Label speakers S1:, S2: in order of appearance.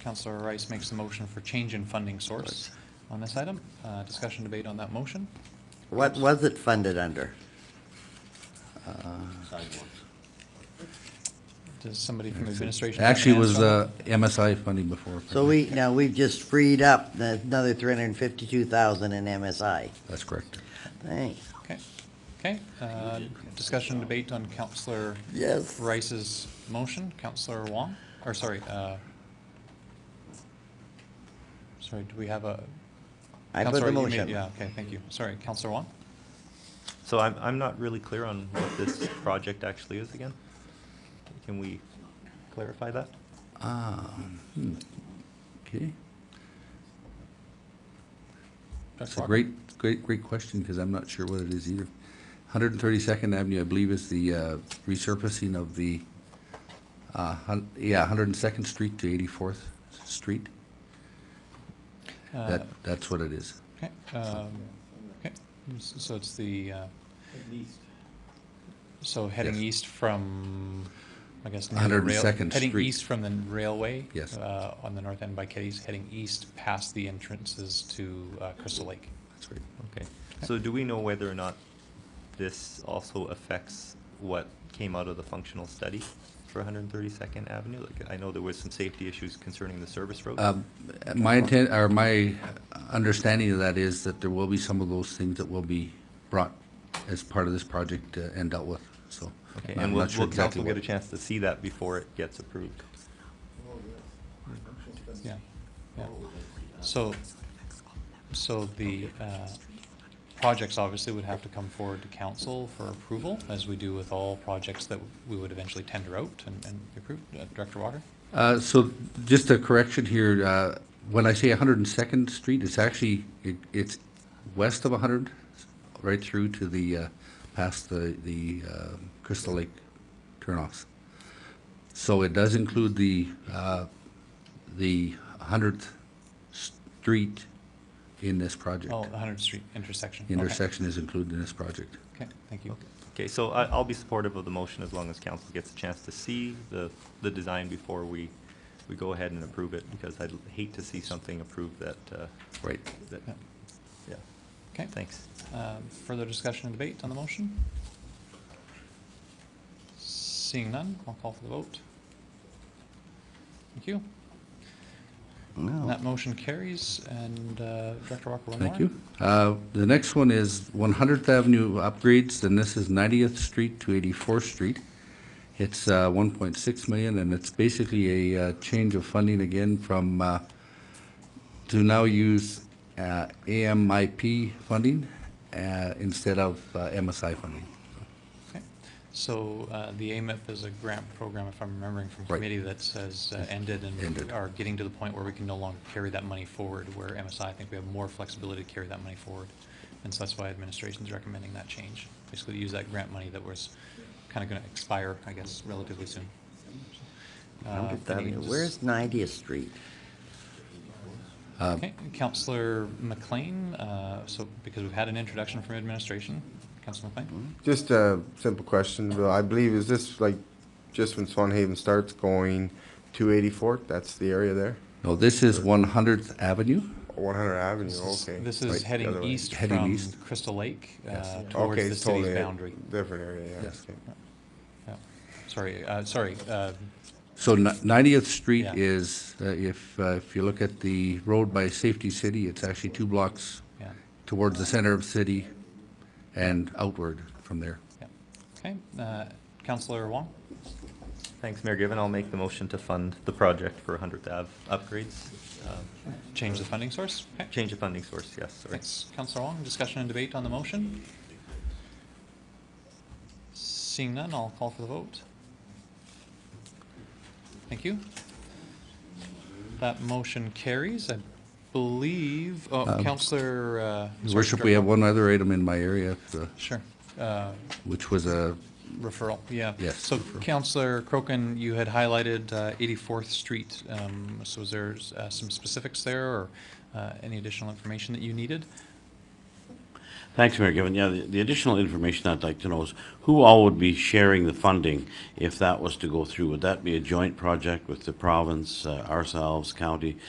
S1: Counselor Rice makes the motion for change in funding source on this item. Uh, Discussion, debate on that motion.
S2: What was it funded under?
S1: Does somebody from the administration? have an
S3: Actually, it was
S1: answer on
S3: uh, MSI funding before.
S2: So we, now, we've just freed up the- another three hundred and fifty-two thousand in MSI.
S3: That's correct.
S2: Thanks.
S3: uh,
S1: that? Okay, okay. uh, Discussion, debate on Counselor
S2: Yes.
S1: Rice's motion. Counselor Wong, or sorry, uh, sorry, do we have a?
S2: I put
S1: Counselor,
S2: the
S1: you made-
S2: motion.
S1: Yeah, okay, thank you. Sorry, Counselor Wong?
S4: So I'm, I'm not really clear on what this project actually is again. Can we clarify that?
S3: Um, hmm, Okay. That's
S1: Dr.
S3: a
S1: Walker?
S3: great, great, great question, because I'm not sure what it is either. 132nd Avenue, I believe, is the uh, resurfacing of the, uh, hun- yeah, 102nd Street to 84th Street.
S1: Uh,
S3: That, that's what it is.
S1: Okay, um, okay, S- so it's the, uh, so heading
S3: Yes.
S1: east from, I guess. near the rail-
S3: 102nd
S1: Heading
S3: Street.
S1: east from the railway.
S3: Yes.
S1: uh, On the north end by Kitty's, heading east past the entrances to uh, Crystal Lake.
S3: That's right.
S4: Okay. So do we know whether or not this also affects what came out of the functional study for 132nd Avenue? Like, I know there was some safety issues concerning the service road.
S3: Um, My intent, or my understanding of that is that there will be some of those things that will be brought as part of this project uh, and dealt with, so.
S4: Okay,
S3: I'm
S4: and will,
S3: not sure
S4: will
S3: exactly
S4: council get a
S3: what-
S4: chance to see that before it gets approved?
S1: Yeah, yeah. So, so the uh, projects obviously would have to come forward to council for approval, as we do with all projects that we would eventually tender out and and approve. Uh, Director Walker?
S3: Uh, So just a correction here, uh, when I say 102nd Street, it's actually, it- it's west of 100, right through to the, uh, past the the um, Crystal Lake turnoffs. So it does include the, uh, the 100th Street in this project.
S1: Oh, the 100th Street intersection. Okay.
S3: Intersection is included in this project.
S1: Okay, thank you.
S4: Okay, so I, I'll be supportive of the motion as long as council gets a chance to see the, the design before we, we go ahead and approve it, because I'd hate to see something approved that, uh,
S3: Right.
S4: that,
S1: Yeah.
S4: yeah,
S1: Okay.
S4: thanks.
S1: Um, Further discussion and debate on the motion? Seeing none, I'll call for the vote. Thank you. And
S2: No.
S1: That motion carries, and uh, Director Walker, one more?
S3: Thank you. Uh, The next one is 100th Avenue upgrades, and this is 90th Street to 84th Street. It's uh, 1.6 million, and it's basically a uh, change of funding again from, uh, to now use uh, AMIP funding uh, instead of uh, MSI funding.
S1: Okay. So uh, the AMIP is a grant program, if I'm remembering from
S3: Right.
S1: committee, that says uh, ended and we
S3: Ended.
S1: are getting to the point where we can no longer carry that money forward, where MSI, I think we have more flexibility to carry that money forward. And so that's why administration's recommending that change, basically to use that grant money that was kind of going to expire, I guess, relatively soon. Uh,
S2: Hundredth
S1: any
S2: Avenue.
S1: dis-
S2: Where's Ninetieth Street?
S3: Uh,
S1: Okay, Counselor McLean, uh, so because we've had an introduction from administration, Counselor
S3: Mm-hmm.
S1: McLean?
S5: Just a simple question, Bill. I believe, is this like, just when Swan Haven starts going to 84th? That's the area there?
S3: No, this is 100th Avenue.
S5: 100 Avenue,
S1: This is-
S5: okay.
S1: This is
S3: Right.
S5: The
S1: heading
S5: other way.
S1: east
S3: Heading
S1: from
S3: east.
S1: Crystal Lake uh,
S3: Yes.
S1: towards
S5: Okay,
S1: the
S5: it's totally
S1: city's
S5: a
S1: boundary.
S5: Different area, yeah.
S3: Yes.
S5: okay.
S1: Yeah. Sorry, uh, sorry, uh,
S3: So ni- 90th Street
S1: Yeah.
S3: is, uh, if, uh, if you look at the road by Safety City, it's actually two blocks
S1: yeah,
S3: towards the center of the city and outward from there.
S1: yeah. Okay, uh, Counselor Wong?
S4: Thanks, Mayor Given. I'll make the motion to fund the project for 100th Ave upgrades. Uh,
S1: Change the funding source? Okay.
S4: Change of funding source, yes, sorry.
S1: Thanks, Counselor Wong. Discussion and debate on the motion? Seeing none, I'll call for the vote. Thank you. That motion carries, I believe. Oh,
S3: Um,
S1: Counselor, uh.
S3: Your
S1: sorry,
S3: Worship, we have
S1: Director.
S3: one other item in my area, uh,
S1: Sure. Uh,
S3: which was a,
S1: Referral, yeah.
S3: Yes,
S1: So
S3: referral.
S1: Counselor Crokin, you had highlighted uh, 84th Street, um, so is there uh, some specifics there or uh, any additional information that you needed?
S6: Thanks, Mayor Given. Yeah, the the additional information I'd like to know is who all would be sharing the funding if that was to go through? Would that be a joint project with the province, uh, ourselves, county?